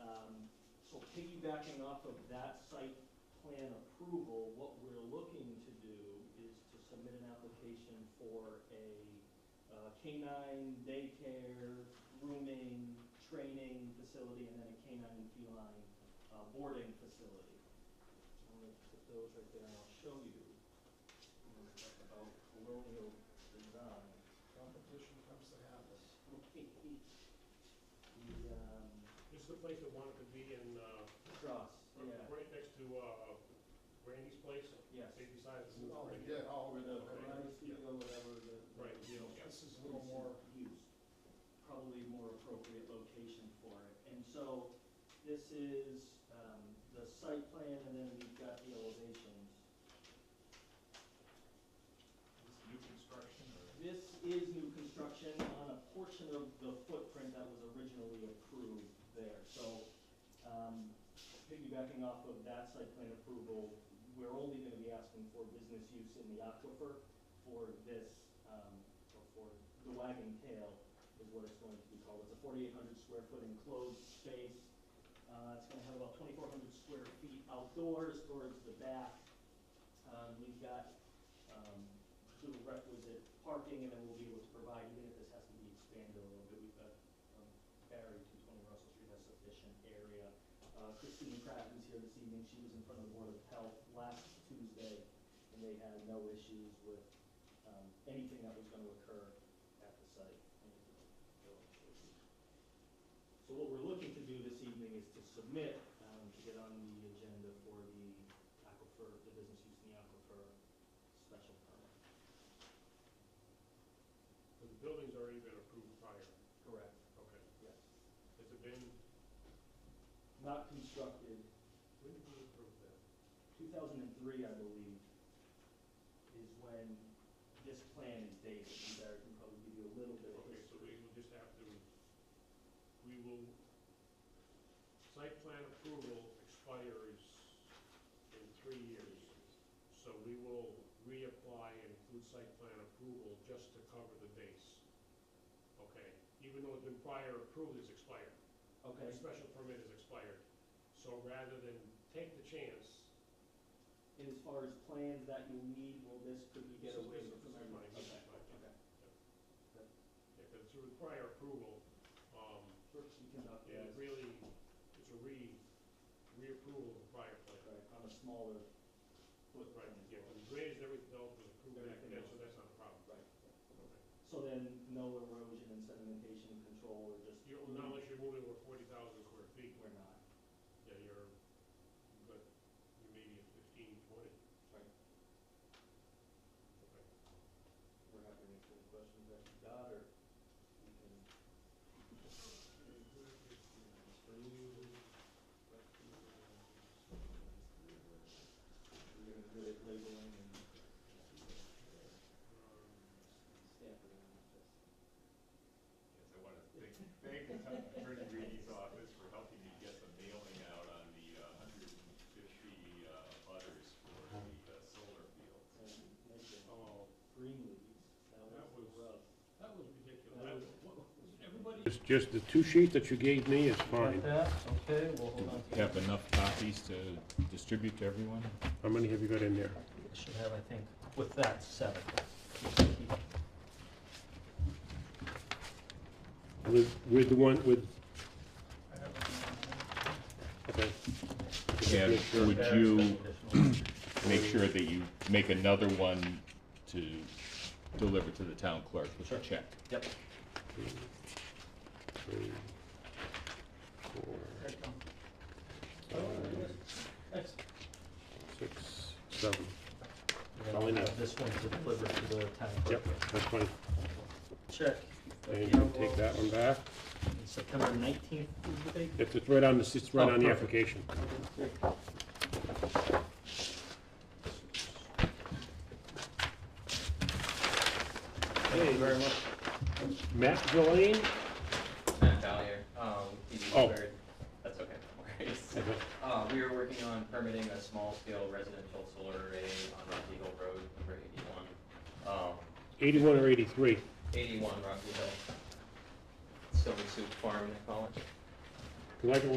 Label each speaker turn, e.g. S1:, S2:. S1: Um, piggybacking off of that site plan approval, what we're looking to do is to submit an application for a uh, canine daycare, grooming, training facility, and then a canine and feline uh, boarding facility. So I'm gonna put those right there, and I'll show you. when we talk About colonial design.
S2: Competition comes to have us.
S1: The, um,
S3: This is the place that wanted to be in, uh,
S1: Cross, yeah,
S3: right next to, uh, Randy's place,
S1: yes.
S3: they decided to
S2: Oh,
S3: move
S2: we
S3: Randy.
S2: did, oh, we did.
S3: Okay.
S1: Right, or whatever the.
S3: Right, yeah, yeah.
S2: This is a little more,
S1: used, probably more appropriate location for it. And so this is um, the site plan, and then we've got the elevations.
S4: This new construction or?
S1: This is new construction on a portion of the footprint that was originally approved there. So um, piggybacking off of that site plan approval, we're only gonna be asking for business use in the aquifer for this, um, or for the wagon tail is what it's going to be called. It's a forty-eight hundred square foot enclosed space. Uh, It's gonna have about twenty-four hundred square feet outdoors towards the back. Um, We've got um, the requisite parking, and then we'll be able to provide, even if this has to be expanded a little bit, we've got, um, Barry, two twenty Russell Street has sufficient area. Uh, Christine Pratt was here this evening, she was in front of the Board of Health last Tuesday, and they had no issues with, um, anything that was gonna occur at the site. So what we're looking to do this evening is to submit, um, to get on the agenda for the aquifer, the business use in the aquifer special permit.
S3: But the building's already been approved prior,
S1: Correct.
S3: okay.
S1: Yes.
S3: Has it been,
S1: Not constructed,
S3: when did we approve that?
S1: two thousand and three, I believe, is when this plan is dated, and Barry can probably give you a little bit of
S3: Okay, so we
S1: history.
S3: will just have to, we will, site plan approval expires in three years. So we will reapply and include site plan approval just to cover the base. Okay, even though it's been prior approved, it's expired. The
S1: Okay,
S3: special permit is expired. So rather than take the chance,
S1: and as far as plans that you need, well, this, could we
S3: this
S1: get
S3: is
S1: away
S3: this
S1: with?
S3: is mine, this is
S1: Okay,
S3: mine.
S1: okay.
S3: Yeah, but through the prior approval, um,
S1: First, you can uh,
S3: Yeah,
S1: update,
S3: it really, it's a re, reapproval of the prior plan.
S1: right, on a smaller
S3: Right,
S1: footprint. as
S3: yeah,
S1: well.
S3: the grades, everything else was approved back
S1: Everything
S3: then,
S1: else.
S3: so that's not a problem.
S1: Right.
S3: Okay.
S1: So then, no erosion and sedimentation control, or just.
S3: You're, well, not unless you're moving over forty thousand square feet,
S1: We're not,
S3: yeah, you're, but you may be at fifteen, twenty.
S1: right,
S3: Okay.
S1: we're happy to answer the questions that you got, or we can. We're gonna do it labeling and stamp it on this.
S4: Yes, I want to thank, thank Attorney Reedy's office for helping me get the mailing out on the hundred and fifty butters for the uh, solar field.
S1: And make it
S3: Um, Oh,
S1: green leaves, that
S3: That
S1: was
S3: was-
S1: the rub.
S3: that was ridiculous.
S1: That was-
S3: That- what- Everybody,
S5: It's just the two sheet that you gave me is fine.
S1: that, okay, we'll hold on to
S4: Have enough copies to distribute to everyone?
S5: How many have you got in there?
S1: Should have, I think, with that, seven.
S5: With, with the one, with? Okay.
S4: Yeah,
S5: Make sure.
S4: would you make sure that you make another one to deliver to the town clerk with a check?
S1: Yep.
S5: Three, four, six, seven.
S1: And
S5: All
S1: then
S5: in
S1: have
S5: it.
S1: this one to deliver to the town
S5: Yep,
S1: clerk.
S5: that's fine.
S1: Check.
S5: And you can take that one back.
S1: September nineteenth is the date?
S5: It's, it's right on the, it's right
S1: Oh,
S5: on the
S1: perfect.
S5: application.
S1: Thank you very much.
S5: Matt Villain?
S6: Matt Valier, um, PD
S5: Oh.
S6: third. That's okay, no worries. Uh, we are working on permitting a small-scale residential solar array on Rocky Hill Road, number eighty-one. Um,
S5: Eighty-one or eighty-three?
S6: eighty-one Rocky Hill. Silver Soup Farm, they call it.
S5: Cause I can